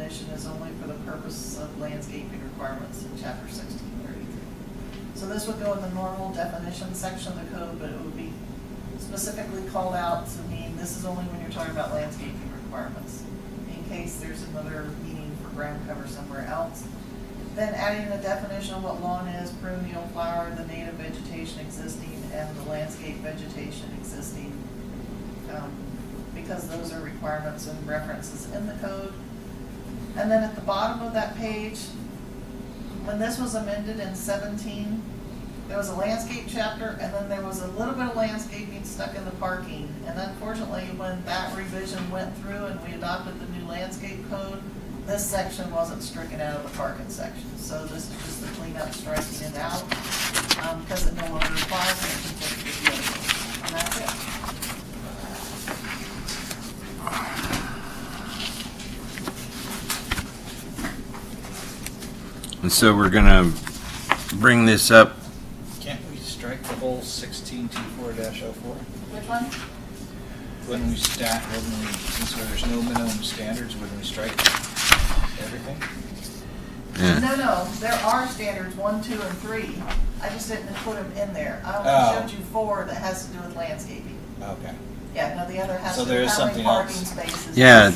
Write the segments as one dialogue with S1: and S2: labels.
S1: definition is only for the purpose of landscaping requirements in chapter sixteen thirty-three. So this would go in the normal definition section of the code, but it would be specifically called out to mean this is only when you're talking about landscaping requirements. In case there's another meaning for ground cover somewhere else. Then adding the definition of what lawn is, perennial flower, the native vegetation existing, and the landscape vegetation existing. um, Because those are requirements and references in the code. And then at the bottom of that page, when this was amended in seventeen, there was a landscape chapter, and then there was a little bit of landscaping stuck in the parking. And unfortunately, when that revision went through and we adopted the new landscape code, this section wasn't stricken out of the parking section. So this is just the cleanup striking it out, um, because it no longer applies and it conflicts with the other. And that's it.
S2: And so we're gonna bring this up,
S3: Can't we strike the whole sixteen two four dash oh four?
S1: Which one?
S3: Wouldn't we stat, wouldn't we, since there's no minimum standards, wouldn't we strike everything?
S2: yeah,
S1: No, no, there are standards, one, two, and three. I just didn't put them in there. I
S3: Oh.
S1: only showed you four that has to do with landscaping.
S3: Okay.
S1: Yeah, no, the other has
S3: So
S1: to
S3: there
S1: do
S3: is
S1: how many
S3: something
S1: parking
S3: else.
S1: spaces.
S2: yeah,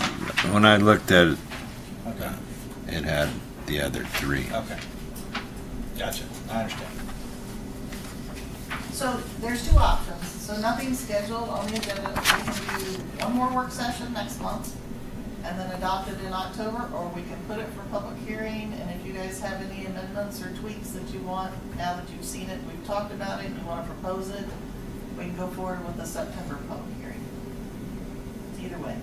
S2: when I looked at it,
S3: Okay,
S2: it had the other three.
S3: okay. Gotcha, I understand.
S1: So there's two options. So nothing scheduled on the agenda. We can do one more work session next month and then adopt it in October, or we can put it for public hearing. And if you guys have any amendments or tweaks that you want, now that you've seen it, we've talked about it, you want to propose it, we can go forward with the September public hearing. Either way.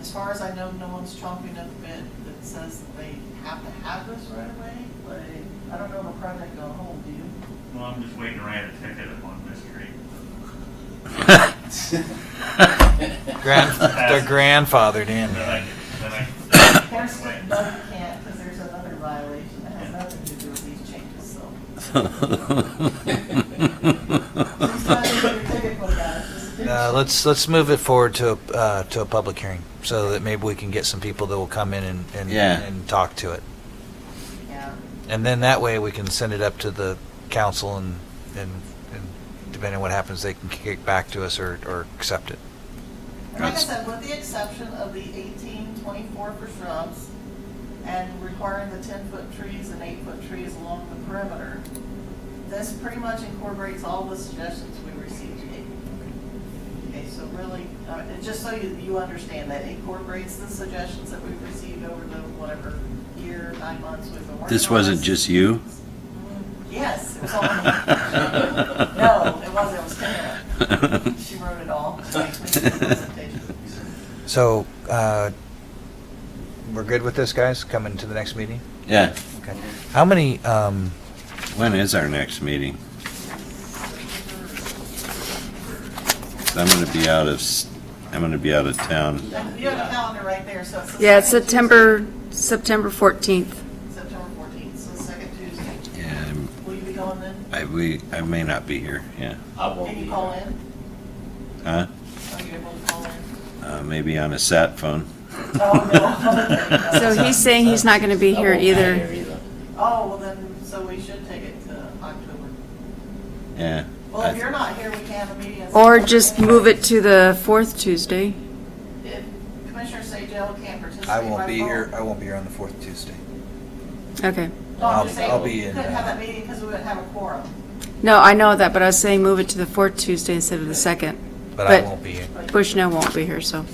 S1: As far as I know, no one's chomping at the bit that says they have to have this right away, but I don't know if a project will hold, do you?
S4: Well, I'm just waiting to write a ticket on this street.
S3: Grand,
S4: they're
S3: grandfathered
S4: Then I, then I.
S1: There's,
S4: Wait.
S1: no, you can't, because there's another violation that has nothing to do with these changes, so. Just not even your ticket book out, just do
S5: Uh,
S1: it.
S5: let's, let's move it forward to, a- uh, to a public hearing, so that maybe we can get some people that will come in and, and,
S2: Yeah.
S5: and talk to it.
S1: Yeah,
S5: And then that way, we can send it up to the council and, and, and depending on what happens, they can kick it back to us or, or accept it.
S1: and like I
S2: That's-
S1: said, with the exception of the eighteen twenty-four for shrubs and requiring the ten-foot trees and eight-foot trees along the perimeter, this pretty much incorporates all the suggestions we received today. Okay, so really, uh, and just so you, you understand that it incorporates the suggestions that we've received over the whatever year, nine months we've been working on.
S2: This wasn't just you?
S1: Yes, it was all me. No, it wasn't, it was Tara. She wrote it all.
S5: So, uh, we're good with this, guys, coming to the next meeting?
S2: Yeah,
S5: Okay. How many, um,
S2: when is our next meeting? 'Cause I'm gonna be out of, s- I'm gonna be out of town.
S1: You have a calendar right there, so it's. the
S6: Yeah, it's
S1: second Tuesday,
S6: September, September 14th.
S1: September fourteenth, so the second Tuesday.
S2: Yeah, I'm-
S1: Will you be going then?
S2: I, we, I may not be here, yeah.
S7: I won't
S1: Can
S7: be
S1: you call
S7: here.
S1: in?
S2: Huh?
S1: Are you able to call in?
S2: Uh, maybe on a sat phone.
S1: Oh, no.
S6: So he's saying he's not going to be
S7: I
S6: here
S7: won't
S6: either.
S1: Oh, well then, so we should take it to October.
S2: Yeah.
S1: Well, if you're not here, we can have a meeting. in
S6: Or
S1: September
S6: just
S1: anyway.
S6: move it to the fourth Tuesday.
S1: If Commissioner Sajal can't participate by
S5: I
S1: phone.
S5: won't be here, I won't be here on the fourth Tuesday.
S1: No,
S6: Okay.
S1: I'm just
S5: I'll-
S1: saying,
S5: I'll
S1: we
S5: be in,
S1: couldn't have
S5: uh,
S1: that meeting because we wouldn't have a quorum.
S6: No, I know that, but I was saying move it to the fourth Tuesday instead of the second.
S5: But I
S6: But-
S5: won't be here.
S6: Bushnell won't be here, so.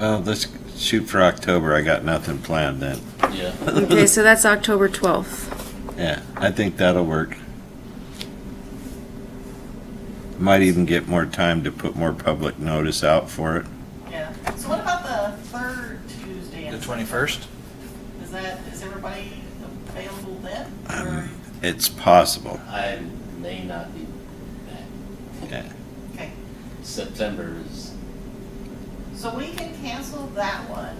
S2: Well, let's shoot for October. I got nothing planned then.
S7: Yeah.
S6: Okay, so that's October 12th.
S2: Yeah, I think that'll work. Might even get more time to put more public notice out for it.
S1: Yeah. So what about the third Tuesday? in
S5: The
S1: September?
S5: twenty-first?
S1: Is that, is everybody available then? Or-
S2: Um, it's possible.
S7: I may not be back.
S2: Yeah.
S1: Okay,
S7: September is,
S1: so we can cancel that one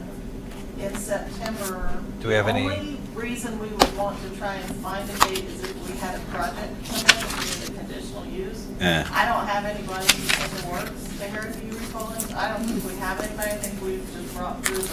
S1: in September.
S5: Do we have any-
S1: The only reason we would want to try and find a date is if we had a project come in that needed conditional use.
S2: Yeah.
S1: I don't have anybody in the works, Eric, do you recall it? I don't think we have anybody, I think we've just brought through the